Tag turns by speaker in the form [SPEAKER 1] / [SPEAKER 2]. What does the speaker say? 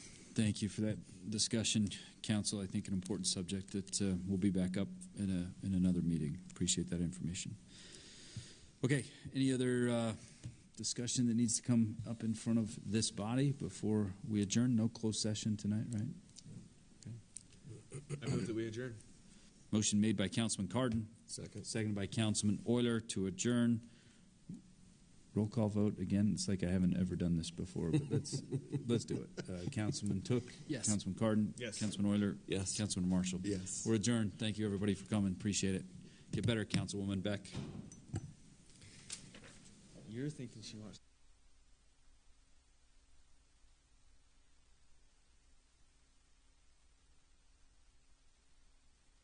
[SPEAKER 1] Thank you for that discussion, Council. I think an important subject that uh, will be back up in, a, in another meeting. Appreciate that information. Okay, any other uh, discussion that needs to come up in front of this body before we adjourn? No closed session tonight, right?
[SPEAKER 2] I move that we adjourn.
[SPEAKER 1] Motion made by Councilman Cardon,
[SPEAKER 2] Second.
[SPEAKER 1] seconded by Councilman Euler to adjourn. Roll call vote again. It's like I haven't ever done this before, but let's let's do it. Uh, Councilman Took,
[SPEAKER 3] Yes.
[SPEAKER 1] Councilman Cardon,
[SPEAKER 2] Yes.
[SPEAKER 1] Councilman Euler,
[SPEAKER 2] Yes.
[SPEAKER 1] Councilman Marshall.
[SPEAKER 2] Yes.
[SPEAKER 1] We're adjourned. Thank you, everybody, for coming. Appreciate it. Get better, Councilwoman Beck.
[SPEAKER 2] You're thinking she wants.